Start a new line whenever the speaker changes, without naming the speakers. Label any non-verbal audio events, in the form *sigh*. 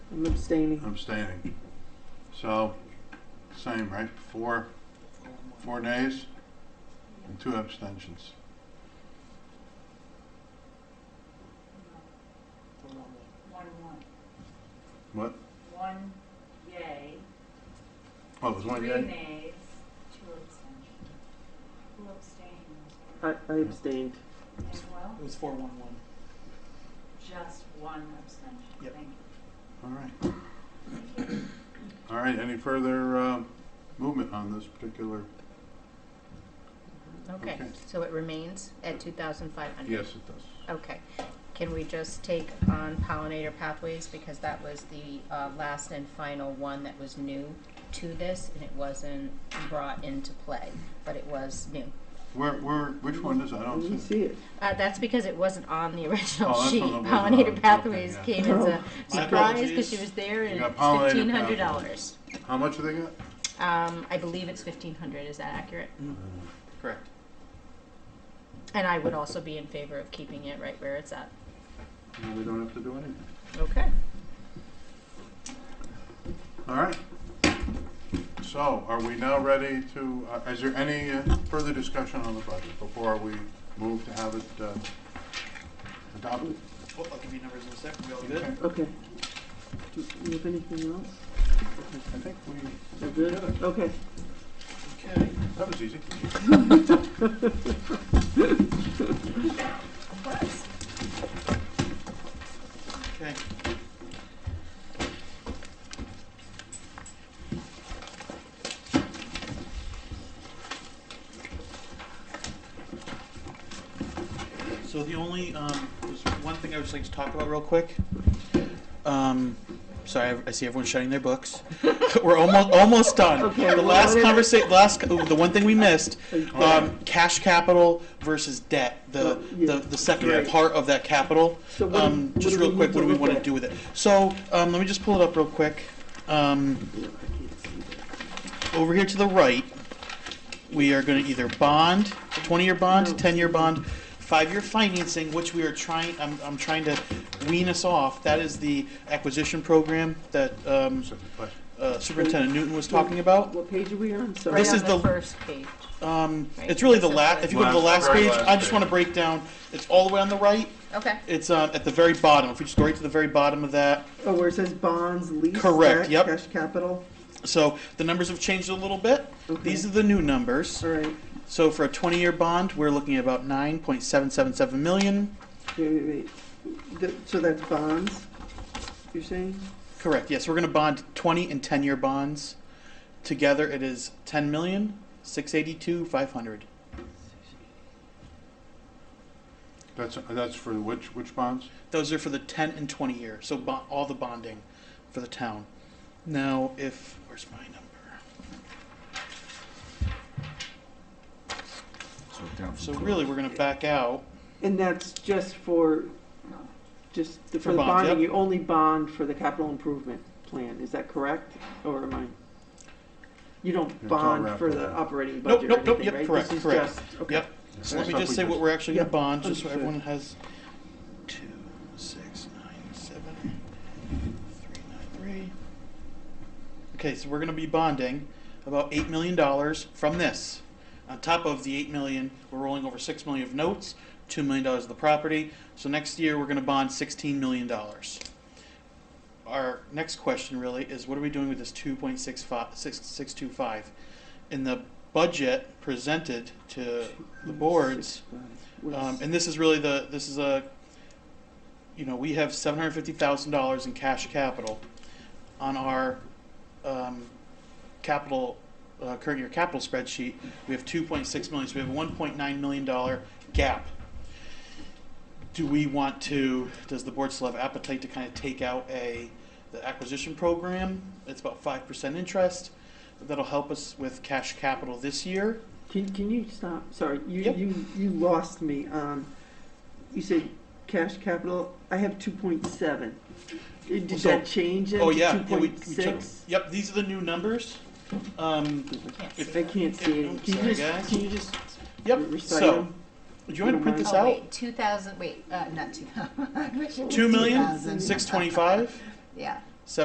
I'm abstaining.
abstaining. So, same, right? Four, four days and two abstentions.
One, one.
What?
One yay,
Oh, it was one
three
yay?
nays, two abstentions. Who abstained?
I, I abstained.
As well?
It was four one one.
Just one abstention.
Yep.
Thank you.
All right. All right, any further uh, movement on this particular?
Okay,
Okay.
so it remains at two thousand five hundred?
Yes, it does.
Okay, can we just take on pollinator pathways, because that was the, uh, last and final one that was new to this, and it wasn't brought into play, but it was new.
Where, where, which one is, it? I
Oh,
I didn't
don't see. it.
see it.
Uh, that's because it wasn't on the *laughs* original
Oh, that's
sheet.
on the original, okay,
Pollinator Pathways
yeah.
came as a
My
surprise
apologies.
because she was there and
You got
it's
Pollinator
fifteen hundred dollars.
How much do they got?
Um, I believe it's fifteen hundred, is that accurate?
Mm.
Correct.
And I would also be in favor of keeping it right where it's at.
No, we don't have to do anything.
Okay.
All right. So are we now ready to, uh, is there any uh, further discussion on the budget before we move to have it uh, adopted?
Well, Oh, I'll give you numbers in a second. We all good?
Okay. Do you have anything else?
I think we,
We're good? Okay.
Okay.
that was easy.
Okay. So the only, um, there's one thing I would just like to talk about real quick. Um, sorry, I- I see everyone shutting their books. *laughs* We're almost, almost done.
Okay,
The last
what is
conversation, last, oh, the one thing we missed,
right.
um, cash capital versus debt, the,
Oh, yeah.
the, the secondary
Right.
part of that capital.
So what-
Um,
what
just
do
real
we
quick,
need
what
to
do we
look
want to
at?
do with it? So, um, let me just pull it up real quick. Um,
Yeah, I can't see that.
over here to the right, we are going to either bond, twenty-year
No.
bond, ten-year bond, five-year financing, which we are trying, I'm, I'm trying to wean us off. That is the acquisition program that, um,
So, but-
uh, Superintendent Newton was talking about.
What page are we on? Sorry.
Right
This
on
is
the
the-
first page.
Um,
Right,
it's really the
that's
la,
what it
if you go to the
is. Last-
last
very
page,
last
I just
page.
want to break down, it's all the way on the right.
Okay.
It's, uh, at the very bottom. If we just go right to the very bottom of that,
Oh, where it says bonds, lease,
Correct,
debt,
yep.
cash capital.
So the numbers have changed a little bit.
Okay.
These are the new numbers.
All right.
So for a 20-year bond, we're looking at about 9.777 million.
Wait, wait, wait. Th- so that's bonds, you're saying?
Correct. Yes, we're going to bond 20 and 10-year bonds. Together, it is 10 million 682 500.
That's, that's for which, which bonds?
Those are for the 10 and 20 year. So bo- all the bonding for the town. Now, if where's my number?
So down
So
from twelve.
really, we're going to back out.
And that's just for, just the-
For
for the
bonds,
bonding,
yep.
you only bond for the capital improvement plan, is that correct? Or am I? You
It's
don't
all
bond
wrapped
for
up.
the operating
Nope,
budget or
nope, nope.
anything,
Yep,
right?
correct,
This is
correct.
just- okay.
Yep. So let me just say what we're actually gonna bond, just so everyone has two, six, nine, seven, three, nine, three. Okay, so we're gonna be bonding about eight million dollars from this. On top of the eight million, we're rolling over six million of notes, two million dollars of the property. So next year, we're gonna bond sixteen million dollars. Our next question really is what are we doing with this two point six five, six, six two five? In the budget presented to the boards,
uh,
um, and this is really the, this is a, you know, we have seven hundred fifty thousand dollars in cash capital on our, um, capital, uh, current year capital spreadsheet. We have two point six million, so we have a one point nine million dollar gap. Do we want to, does the board still have appetite to kind of take out a, the acquisition program? It's about five percent interest. That'll help us with cash capital this year.
Can, can you stop, sorry, you,
Yep.
you, you lost me, um, you said cash capital, I have two point seven. Uh, Did
So-
that change it?
Oh, yeah.
Two
yeah, we-
point
we took-
six?
Yep, these are the new numbers. Um,
Can't see
If-
I
that.
can't see
I'm
it. Can
sorry,
you just,
guys.
can you just
yep,
recite
so,
them?
do you want me to print this
Oh,
out?
wait, two thousand, *laughs* wait, uh, not two thousand.
Two million, six twenty-five?
Yeah,